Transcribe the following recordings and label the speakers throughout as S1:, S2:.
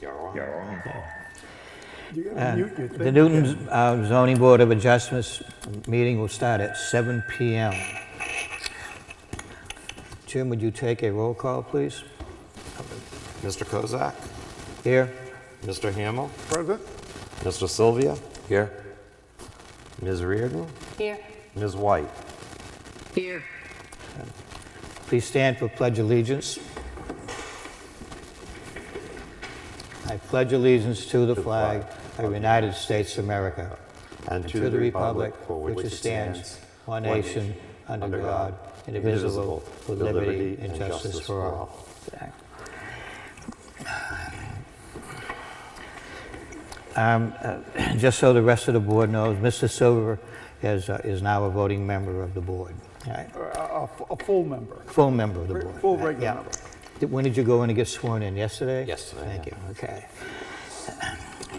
S1: Yeah.
S2: You gotta
S3: And
S2: mute your
S3: The
S2: thing.
S3: Newton uh, Zoning Board of Adjustments meeting will start at 7 PM. Jim, would you take a roll call, please?
S4: Mr. Kozak,
S3: Here?
S4: Mr. Hamel,
S2: Present?
S4: Mr. Sylvia. Here. Ms. Reardon,
S5: Here.
S4: Ms. White.
S5: Here.
S3: Please stand for pledge allegiance. I pledge allegiance to the flag of the United States of America and to the republic for which it stands, one nation, under God, indivisible, with liberty and justice for all. Um, uh, Just so the rest of the board knows, Mr. Silver is uh, is now a voting member of the board. All right.
S2: A, a- a full member.
S3: Full member of the board.
S2: Full regular
S3: Yeah.
S2: member.
S3: Did- When did you go in and get sworn in, yesterday?
S4: Yesterday,
S3: Thank
S4: yeah.
S3: you, okay.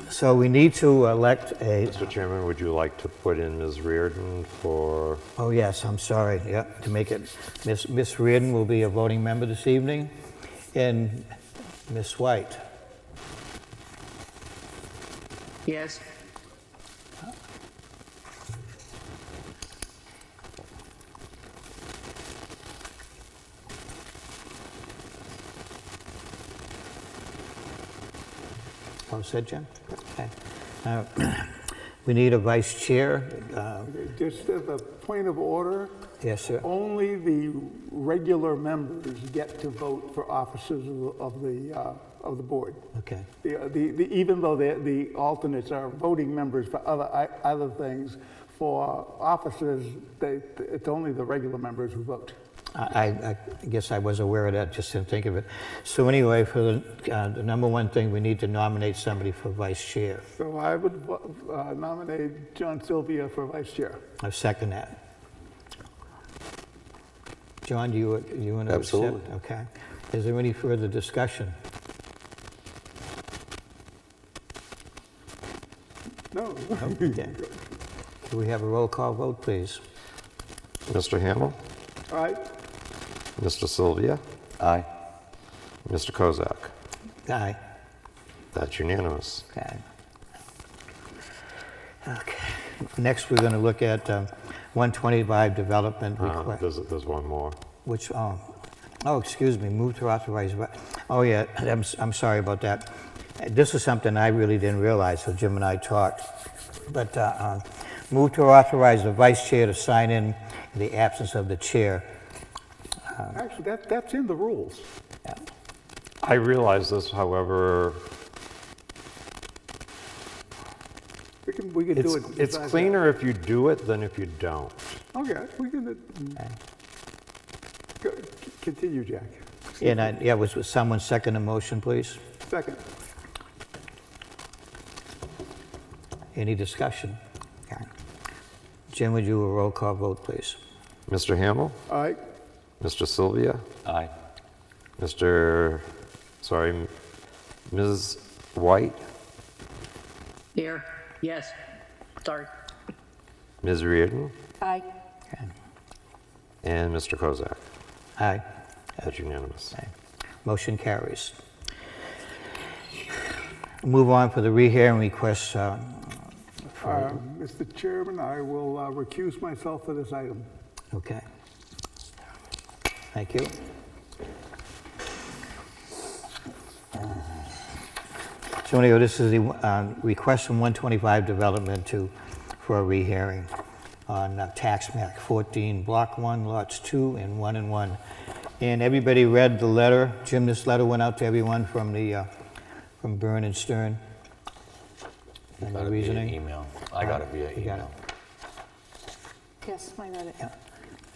S3: So we need to elect a,
S4: Mr. Chairman, would you like to put in Ms. Reardon for,
S3: oh yes, I'm sorry, yeah, to make it, Miss Miss Reardon will be a voting member this evening, and Miss White.
S5: Yes.
S3: All said, Jim? Okay. Now, We need a vice chair. Uh,
S2: Just as a point of order,
S3: Yes, sir.
S2: only the regular members get to vote for officers of- of the, uh, of the board.
S3: Okay,
S2: The, uh, the- the- even though the, the alternates are voting members for other, i- other things, for officers, they, it's only the regular members who vote.
S3: I- I I guess I was aware of that, just didn't think of it. So anyway, for the uh, the number one thing, we need to nominate somebody for vice chair.
S2: So I would vo- uh, nominate John Sylvia for vice chair.
S3: I second that. John, do you, do you want to accept?
S4: Absolutely.
S3: Okay. Is there any further discussion?
S2: No,
S3: Okay. Do we have a roll call vote, please?
S4: Mr. Hamel,
S2: all right,
S4: Mr. Sylvia? Aye. Mr. Kozak?
S3: Aye.
S4: That's unanimous.
S3: Okay. Okay. Next, we're going to look at um, 125 development
S4: Uh,
S3: request.
S4: There's, there's one more.
S3: Which, um, oh, excuse me, move to authorize, ri- oh yeah, I'm, s- I'm sorry about that. This is something I really didn't realize, so Jim and I talked. But, uh, uh, move to authorize the vice chair to sign in in the absence of the chair.
S2: actually, that, that's in the rules.
S4: I realize this, however,
S2: We can, we can
S4: it's,
S2: do it.
S4: it's
S2: besides that.
S4: cleaner if you do it than if you don't.
S2: Okay, we can, uh, go- c- continue, Jack.
S3: And I, yeah, was, was someone second the motion, please?
S2: Second,
S3: Any discussion? Okay. Jim, would you a roll call vote, please?
S4: Mr. Hamel?
S2: all right,
S4: Mr. Sylvia? Aye. Mr., sorry, M- Ms. White,
S5: Here. Yes. Sorry.
S4: Ms. Reardon,
S5: Aye.
S3: Okay.
S4: and Mr. Kozak.
S3: Aye.
S4: That's unanimous.
S3: Motion carries. Move on for the rehearing request, uh,
S2: Uh, Mr. Chairman, I will uh, recuse myself for this item.
S3: Okay. Thank you. So anyway, this is the um, request from 125 Development to, for a rehearing on uh, tax map 14, Block 1, Lots 2 and 1 and 1. And everybody read the letter. Jim, this letter went out to everyone from the, uh, from Byrne and Stern. And the reasoning?
S6: email. I got it via
S3: You got it.
S6: email.
S5: Yes, I read it.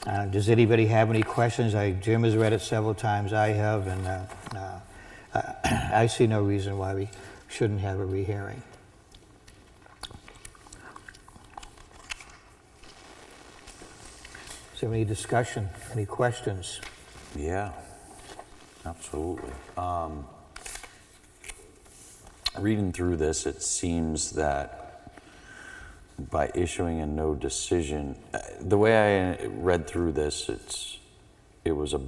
S3: Uh, Does anybody have any questions? I- Jim has read it several times, I have, and uh, uh, I see no reason why we shouldn't have a rehearing. Is there any discussion, any questions?
S6: Yeah, absolutely. Um, Reading through this, it seems that by issuing a no decision, uh, the way I read through this, it's, it was a